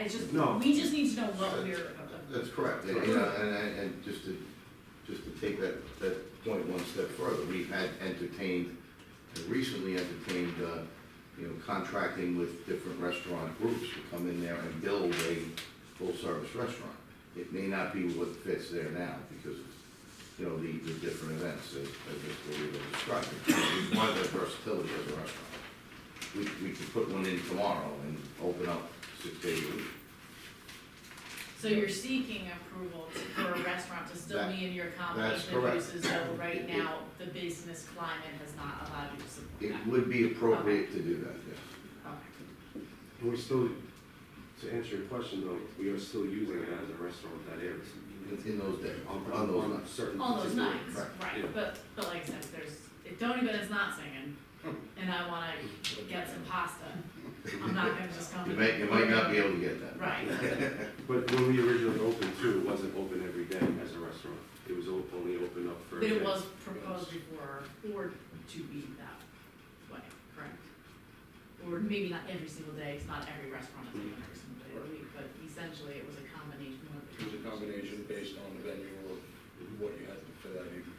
it's just, No. we just need to know what we're, That's correct, and, you know, and, and, and just to, just to take that, that point one step further, we had entertained, and recently entertained, uh, you know, contracting with different restaurant groups to come in there and build a full-service restaurant. It may not be what fits there now, because, you know, the, the different events, as, as Mr. Weaver described, we want that versatility as a restaurant. We, we could put one in tomorrow and open up six days a week. so you're seeking approval to- for a restaurant to still be in your That's combination of correct. uses, though right It- it- now, the business climate has not allowed you to It support would be appropriate to do that, yes. that. Okay. We're still, to answer your question though, we are still using it as a restaurant that is. In- in those days, On, on those on nights. certain. All those particular- nights, right, yeah. right, but, but like I said, there's, if Tony Bennett's not singing, and I wanna get some pasta, I'm not gonna just come. You in. might, you might not be able to get that. Right, But when we originally opened too, it wasn't open every day as a restaurant. It was o- only open up for. but it events. was proposed before, or to be that way, correct? Or maybe not every single day, it's not every restaurant is open every single day of the week, but essentially it was a combination of. It was a combination based on the venue or what you had for that evening.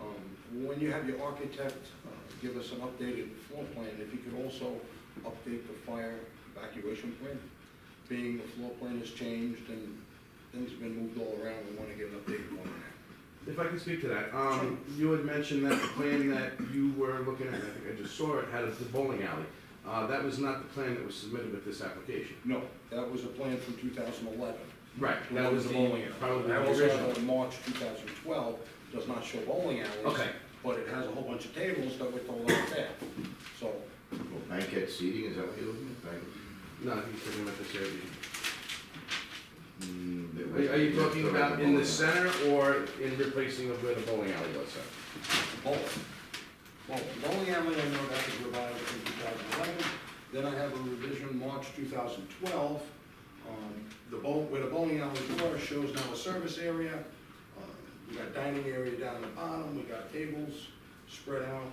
Um, When you have your architect, uh, give us an updated floor plan, if you could also update the fire evacuation plan, being the floor plan has changed and things have been moved all around, we want to get an updated one on that. If I can speak to that, um, you had mentioned that the plan that you were looking at, I think I just saw it, had the bowling alley. Uh, that was not the plan that was submitted with this application. No, that was a plan from 2011. Right, that was the, probably I the also original. have a March 2012, does not show bowling alleys. Okay. But it has a whole bunch of tables that were told out there. So Well, Banquet seating, is that what you're looking at? Banquet? No, I think you're talking about this area. Mm, there Are- Are you was- talking there was about a in the bowling alley. center or in replacing of where the bowling alley was, sir? Bowling. Bowling. Bowling alley, I know that was revised in two thousand eleven, then I have a revision March two thousand twelve. Um, the bowl, where the bowling alley door shows now a service area, uh, we got dining area down the bottom, we got tables spread out.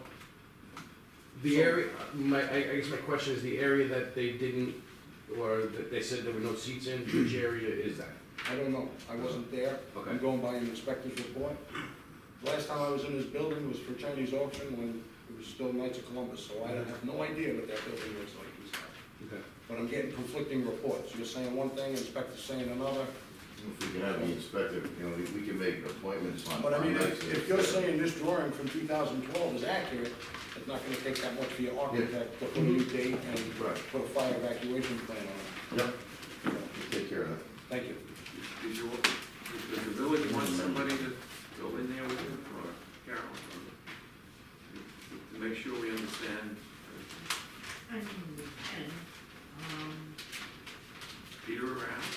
The So- area, my, I, I guess my question is the area that they didn't, or that they said there were no seats in, which area is that? I don't know, I wasn't there, Okay. I'm going by an inspector's report. Last time I was in this building was for Chinese auction when it was still Knights of Columbus, so I have no idea what that building looks like inside. Okay. But I'm getting conflicting reports. You're saying one thing, inspector's saying another. If we can have the inspector, you know, we we can make appointments on. But I mean, on nights if, that- if you're saying this drawing from two thousand twelve is accurate, it's not gonna take that much for your architect to put a new date and Right. put a fire evacuation plan on Yep, it. take care of that. Thank you. Did you, does the village want somebody to go in there with you, or Carol? or- To make sure we understand, uh, I mean, we can, um, Peter around?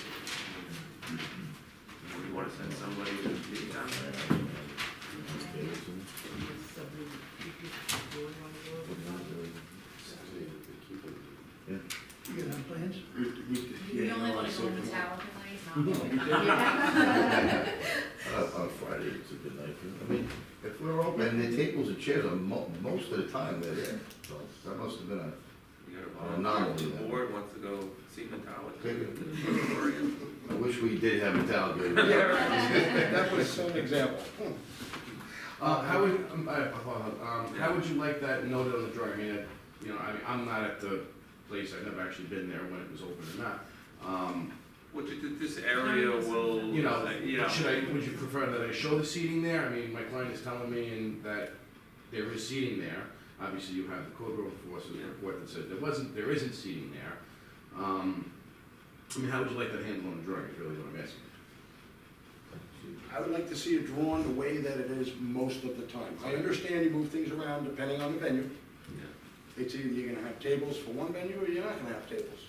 Or we wanna send somebody to be down there? it's something that you could, you wanna go over that? You have plans? We only wanna go to Metallica night, not. Uh, On Friday, it's a good night. I mean, if we're open, and the tables and chairs are mo- most of the time they're there, so that must have been a, You gotta Uh, not only volunteer. The that. board wants to go see Take it. Metallica. I wish we did have a Talbot. Yeah, right. That was an example. Uh, how would, um, uh, hold on, um, how would you like that noted on the drawing, I mean, it- you know, I mean, I'm not at the place, I've never actually been there when it was open or not. Um, Which, this area will, uh, you know, you know, should I, would you prefer that I show the seating there, I mean, my client is telling me and that there is seating there. Obviously, you have the code enforcement Yeah. report that said there wasn't, there isn't seating there. Um, I mean, how would you like that handled on the drawing, is really what I'm asking. I would like to see it drawn the way that it is most of the time. I understand you move things around depending on the venue. yeah. It's either you're gonna have tables for one venue or you're not gonna have tables.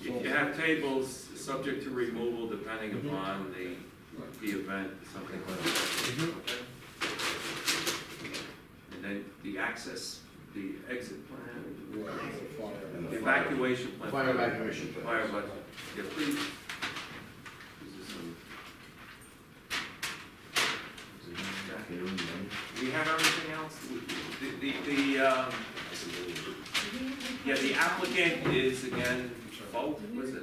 If you have tables subject to removal depending upon the, the event, something like that. okay? And then the access, the exit plan, Right, for fire. And the evacuation plan. Fire evacuation plan. Fire evac- yeah, please. This is some- We have everything else, We- the, the, the, um, yeah, the applicant is again, Volk, was it?